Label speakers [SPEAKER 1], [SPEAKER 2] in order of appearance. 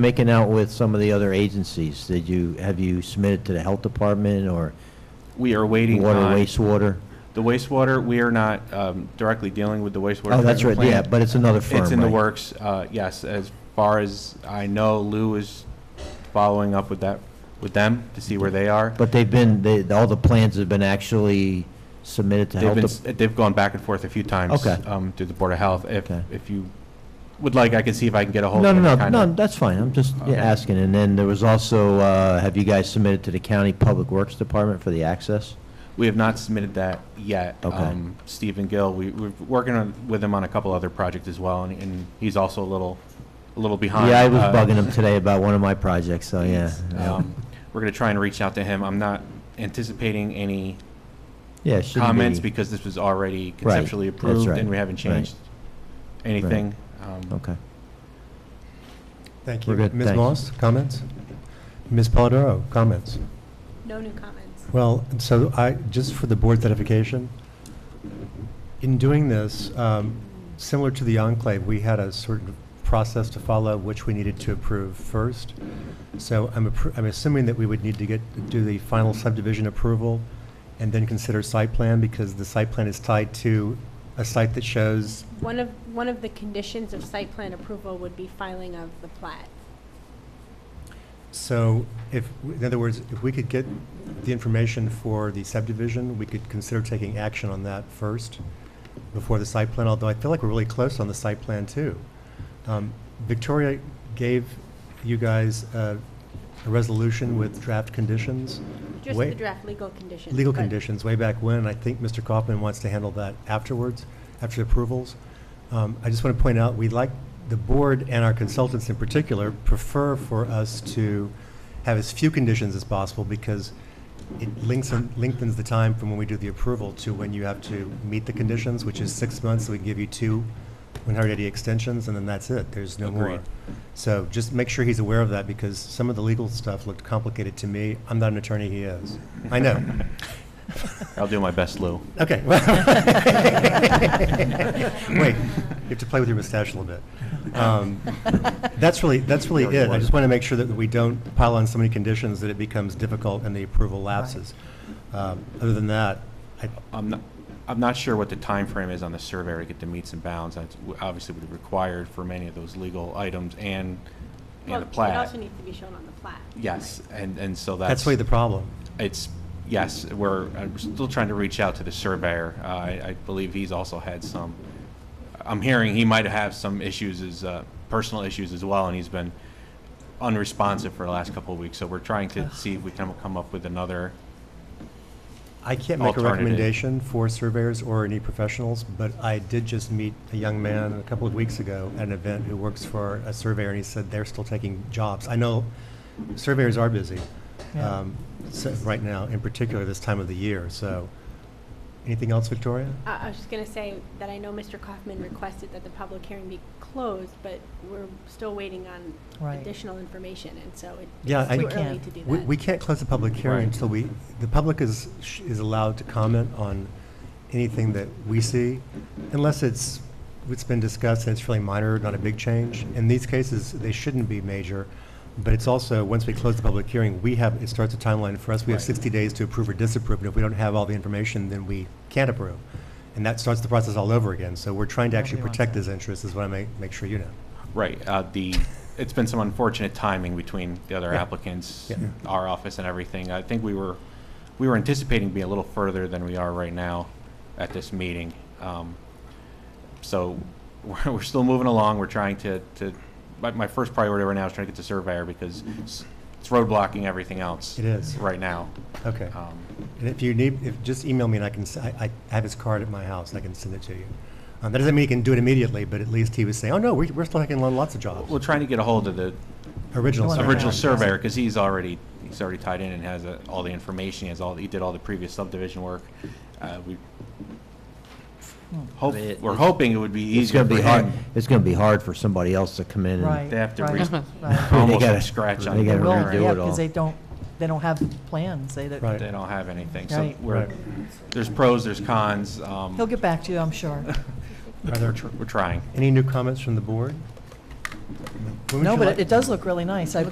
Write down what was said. [SPEAKER 1] making out with some of the other agencies? Did you, have you submitted to the health department or
[SPEAKER 2] We are waiting
[SPEAKER 1] water,
[SPEAKER 2] on
[SPEAKER 1] wastewater?
[SPEAKER 2] the wastewater. We are not um, directly dealing with the wastewater.
[SPEAKER 1] Oh, that's right,
[SPEAKER 2] treatment
[SPEAKER 1] yeah,
[SPEAKER 2] plant.
[SPEAKER 1] but it's another firm,
[SPEAKER 2] It's in the
[SPEAKER 1] right?
[SPEAKER 2] works, uh, yes. As far as I know, Lou is following up with that, with them to see where they are.
[SPEAKER 1] But they've been, they, all the plans have been actually submitted to
[SPEAKER 2] They've
[SPEAKER 1] health.
[SPEAKER 2] been,
[SPEAKER 1] dep-
[SPEAKER 2] s- they've gone back and forth a few times
[SPEAKER 1] Okay.
[SPEAKER 2] um, through the Board of Health. If,
[SPEAKER 1] Okay.
[SPEAKER 2] if you would like, I can see if I can get a hold
[SPEAKER 1] No,
[SPEAKER 2] of them.
[SPEAKER 1] no, no,
[SPEAKER 2] kind of-
[SPEAKER 1] no, that's fine, I'm just yeah,
[SPEAKER 2] Okay.
[SPEAKER 1] asking. And then there was also, uh, have you guys submitted to the county public works department for the access?
[SPEAKER 2] We have not submitted that yet.
[SPEAKER 1] Okay.
[SPEAKER 2] Um, Stephen Gill, we, we're working on, with him on a couple other projects as well, and, and he's also a little, a little behind.
[SPEAKER 1] Yeah, I was
[SPEAKER 2] uh,
[SPEAKER 1] bugging him today about one of my projects, so Oh, yeah. yeah.
[SPEAKER 2] Um, We're gonna try and reach out to him. I'm not anticipating any
[SPEAKER 1] Yeah, it shouldn't
[SPEAKER 2] comments
[SPEAKER 1] be-
[SPEAKER 2] because this was already
[SPEAKER 1] Right,
[SPEAKER 2] conceptually
[SPEAKER 1] that's
[SPEAKER 2] approved
[SPEAKER 1] right,
[SPEAKER 2] and we haven't
[SPEAKER 1] right.
[SPEAKER 2] changed anything. Um,
[SPEAKER 1] Okay.
[SPEAKER 3] Thank
[SPEAKER 1] We're
[SPEAKER 3] you.
[SPEAKER 1] good,
[SPEAKER 3] Ms.
[SPEAKER 1] thanks.
[SPEAKER 3] Moss, comments? Ms. Polidoro, comments?
[SPEAKER 4] No new comments.
[SPEAKER 3] Well, so I, just for the board's edification, in doing this, um, similar to the enclave, we had a certain process to follow which we needed to approve first. So I'm, appro- I'm assuming that we would need to get, do the final subdivision approval and then consider site plan because the site plan is tied to a site that shows,
[SPEAKER 4] One of, one of the conditions of site plan approval would be filing of the plat.
[SPEAKER 3] so if, in other words, if we could get the information for the subdivision, we could consider taking action on that first before the site plan, although I feel like we're really close on the site plan too. Um, Victoria gave you guys uh, a resolution with draft conditions,
[SPEAKER 4] Just the
[SPEAKER 3] Wait.
[SPEAKER 4] draft legal conditions.
[SPEAKER 3] legal
[SPEAKER 4] but-
[SPEAKER 3] conditions way back when. I think Mr. Kaufman wants to handle that afterwards, after approvals. Um, I just want to point out, we like, the board and our consultants in particular prefer for us to have as few conditions as possible because it links, lengthens the time from when we do the approval to when you have to meet the conditions, which is six months. We can give you two 180 extensions, and then that's it. There's no more.
[SPEAKER 2] Agreed.
[SPEAKER 3] So just make sure he's aware of that because some of the legal stuff looked complicated to me. I'm not an attorney, he is. I know.
[SPEAKER 2] I'll do my best, Lou.
[SPEAKER 3] Okay. Wait, you have to play with your mustache a little bit. Um, That's really, that's really
[SPEAKER 2] Very
[SPEAKER 3] it. I
[SPEAKER 2] wise.
[SPEAKER 3] just want to make sure that we don't pile on so many conditions that it becomes difficult and the approval lapses. Um, Other than that, I,
[SPEAKER 2] I'm not, I'm not sure what the time frame is on the surveyor to get the meets and bounds. That's w- obviously would be required for many of those legal items and,
[SPEAKER 4] Well,
[SPEAKER 2] and the
[SPEAKER 4] It also
[SPEAKER 2] plat.
[SPEAKER 4] needs to be shown on the plat.
[SPEAKER 2] Yes, and, and so that's.
[SPEAKER 3] that's really the problem.
[SPEAKER 2] It's, yes, we're, I'm still trying to reach out to the surveyor. Uh, I, I believe he's also had some, I'm hearing he might have some issues, as, uh, personal issues as well, and he's been unresponsive for the last couple of weeks. So we're trying to see if we can come up with another,
[SPEAKER 3] I can't make a
[SPEAKER 2] Alternative.
[SPEAKER 3] recommendation for surveyors or any professionals, but I did just meet a young man a couple of weeks ago at an event who works for a surveyor, and he said they're still taking jobs. I know surveyors are busy, um, so- right now, in particular this time of the year, so. Anything else, Victoria?
[SPEAKER 4] I, I was just gonna say that I know Mr. Kaufman requested that the public hearing be closed, but we're still waiting on
[SPEAKER 5] Right.
[SPEAKER 4] additional information, and so it-
[SPEAKER 3] Yeah, I-
[SPEAKER 4] it's too
[SPEAKER 3] We
[SPEAKER 4] early
[SPEAKER 5] can't.
[SPEAKER 4] to do
[SPEAKER 3] We,
[SPEAKER 4] that.
[SPEAKER 3] we can't close the public hearing
[SPEAKER 2] Right.
[SPEAKER 3] until we, the public is, sh- is allowed to comment on anything that we see, unless it's, it's been discussed and it's really minor, not a big change. In these cases, they shouldn't be major, but it's also, once we close the public hearing, we have, it starts a timeline for us. We have
[SPEAKER 2] Right.
[SPEAKER 3] sixty days to approve or disapprove, and if we don't have all the information, then we can't approve. And that starts the process all over again, so we're trying to actually
[SPEAKER 5] Nobody wants
[SPEAKER 3] protect
[SPEAKER 5] that.
[SPEAKER 3] his interests, is what I make, make sure you know.
[SPEAKER 2] right, uh, the, it's been some unfortunate timing between the other
[SPEAKER 3] Yeah.
[SPEAKER 2] applicants,
[SPEAKER 3] Yeah.
[SPEAKER 2] our office and everything. I think we were, we were anticipating being a little further than we are right now at this meeting. Um, So we're, we're still moving along. We're trying to, to, my, my first priority right now is trying to get the surveyor because it's it's roadblocking everything else.
[SPEAKER 3] It is.
[SPEAKER 2] Right now.
[SPEAKER 3] Okay.
[SPEAKER 2] Um,
[SPEAKER 3] And if you need, if, just email me and I can, s- I, I have his card at my house, and I can send it to you. Um, that doesn't mean he can do it immediately, but at least he was saying, oh, no, we're, we're still taking on lots of jobs.
[SPEAKER 2] We're trying to get a hold of the
[SPEAKER 3] Original.
[SPEAKER 5] No, no,
[SPEAKER 3] survey.
[SPEAKER 2] original
[SPEAKER 5] Yeah.
[SPEAKER 2] surveyor because he's already, he's already tied in and has uh, all the information. He has all, he did all the previous subdivision work. Uh, We hope,
[SPEAKER 1] It-
[SPEAKER 2] we're hoping it would be
[SPEAKER 1] It's
[SPEAKER 2] easier
[SPEAKER 1] gonna
[SPEAKER 2] for
[SPEAKER 1] be hard,
[SPEAKER 2] him.
[SPEAKER 1] it's gonna be hard for somebody else to come in
[SPEAKER 5] Right.
[SPEAKER 1] and,
[SPEAKER 2] They have to
[SPEAKER 5] right,
[SPEAKER 2] re-
[SPEAKER 5] right.
[SPEAKER 2] Almost
[SPEAKER 1] gotta-
[SPEAKER 2] from scratch on.
[SPEAKER 1] they gotta
[SPEAKER 5] They will,
[SPEAKER 1] redo
[SPEAKER 5] yeah,
[SPEAKER 1] it all.
[SPEAKER 5] because they don't, they don't have plans, they,
[SPEAKER 3] Right.
[SPEAKER 2] They don't have anything. So
[SPEAKER 5] Right.
[SPEAKER 2] we're,
[SPEAKER 3] Right.
[SPEAKER 2] there's pros, there's cons. um,
[SPEAKER 5] he'll get back to you, I'm sure.
[SPEAKER 3] Are
[SPEAKER 2] We're
[SPEAKER 3] there
[SPEAKER 2] tr- we're trying.
[SPEAKER 3] any new comments from the board? When would
[SPEAKER 5] No,
[SPEAKER 3] you
[SPEAKER 5] but
[SPEAKER 3] like-
[SPEAKER 5] it- it does look really nice. I